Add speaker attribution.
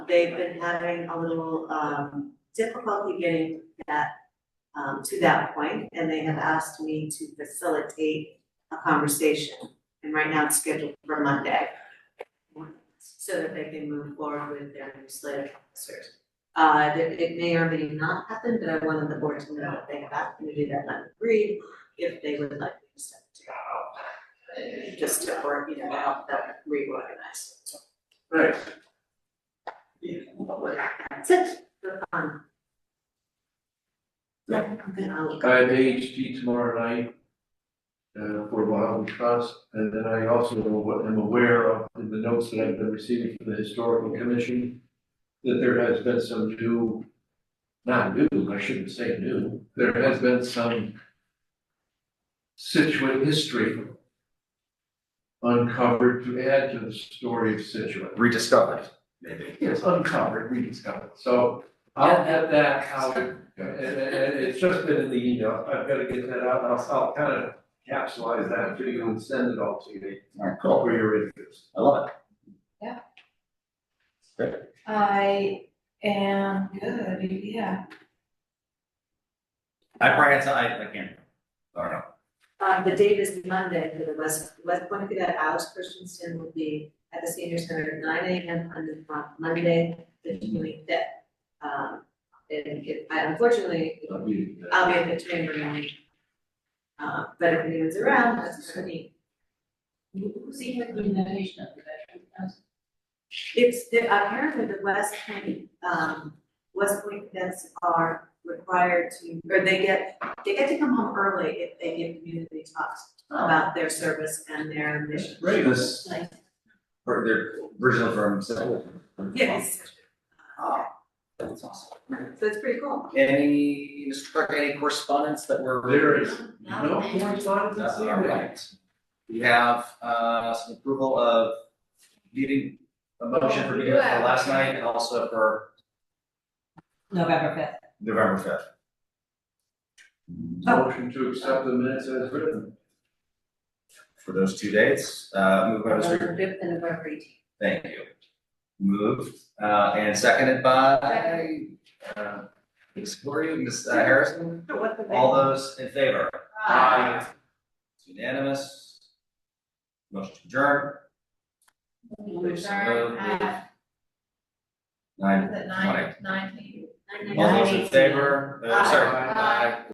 Speaker 1: they've been having a little, um, difficulty getting that, um, to that point, and they have asked me to facilitate a conversation. And right now it's scheduled for Monday, so that they can move forward with their new slate of officers. Uh, that it may or may not happen, but I wanted the board to know if they have asked me to do that, and I agreed, if they would like me to step in. Just to, work, you know, to help them reorganize.
Speaker 2: Right.
Speaker 1: That's it, for fun. Yeah, I'll-
Speaker 2: I have AHG tomorrow night uh, for Wildwood Trust, and then I also am aware of in the notes that I've been receiving from the Historical Commission that there has been some new, not new, I shouldn't say new, there has been some Situate history uncovered to add to the story of Situate.
Speaker 3: rediscovered, maybe.
Speaker 2: It's uncovered, rediscovered, so I'll have that out And, and, and it's just been in the email, I've gotta get that out, and I'll, I'll kind of capsulize that to you and send it all to you
Speaker 3: Alright, cool,
Speaker 2: for your interest.
Speaker 3: I love it.
Speaker 4: I am good, yeah.
Speaker 3: I prioritize, I can't, I don't know,
Speaker 1: Uh, the date is Monday for the West, West Point Cadet, Alex Christensen will be at the senior center at nine AM on the- on Monday, the twenty-fifth. Um, and if, I unfortunately,
Speaker 2: I'll be-
Speaker 1: I'll be at the chamber meeting. Uh, but if anyone's around, that's for me.
Speaker 4: Who's the implementation of the veteran council?
Speaker 1: It's, the- apparently the West Point, um, West Point cadets are required to, or they get, they get to come home early if they give community talks about their service and their mission.
Speaker 2: Great.
Speaker 3: this,
Speaker 4: Nice.
Speaker 3: for their original firm, so.
Speaker 1: Yes,
Speaker 3: Oh, That's awesome.
Speaker 1: so it's pretty cool.
Speaker 3: Any, Mr. Clark, any correspondence that were?
Speaker 2: There is no correspondence this
Speaker 3: That's all
Speaker 2: evening.
Speaker 3: right. We have, uh, some approval of meeting, a motion for meeting for last night and also for
Speaker 4: November fifth.
Speaker 3: November fifth.
Speaker 2: Motion to accept the minutes as written.
Speaker 3: For those two dates, uh, move by Mr.
Speaker 1: November fifth and November eighteenth.
Speaker 3: Thank you. Moved, uh, and seconded by, uh, Ms. Gloria, Ms. uh, Harrison, all those in favor? Aye. It's Unanimous. Motion to adjourn. Please, uh, Nine,
Speaker 4: Is it
Speaker 3: twenty.
Speaker 4: nine, nineteen?
Speaker 3: All those in favor, Uh, sorry,
Speaker 2: Aye.
Speaker 3: aye.